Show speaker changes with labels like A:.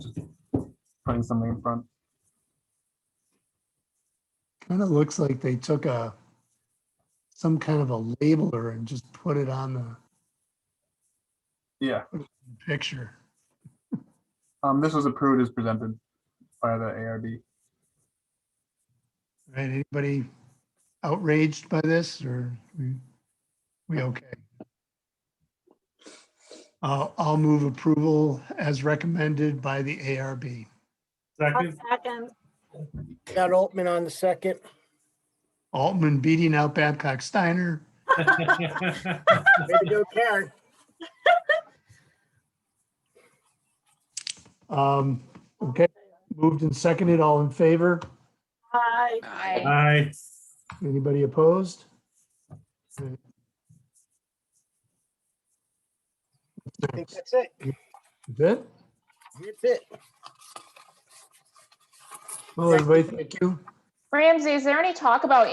A: putting something in front.
B: Kind of looks like they took a, some kind of a labeler and just put it on the
A: Yeah,
B: picture.
A: um, this was approved as presented by the ARB.
B: Right, anybody outraged by this or we, we okay? Uh, I'll move approval as recommended by the ARB.
C: I'll
D: Second,
C: second.
E: Got Altman on the second.
B: Altman beating out Babcock Steiner.
E: Way to go, Karen.
B: Um, okay, moved and seconded, all in favor?
C: Aye.
F: Aye.
D: aye,
B: Anybody opposed? Right.
E: I think that's it.
B: That's it?
E: That's it.
B: Well, everybody, thank you.
F: Ramsey, is there any talk about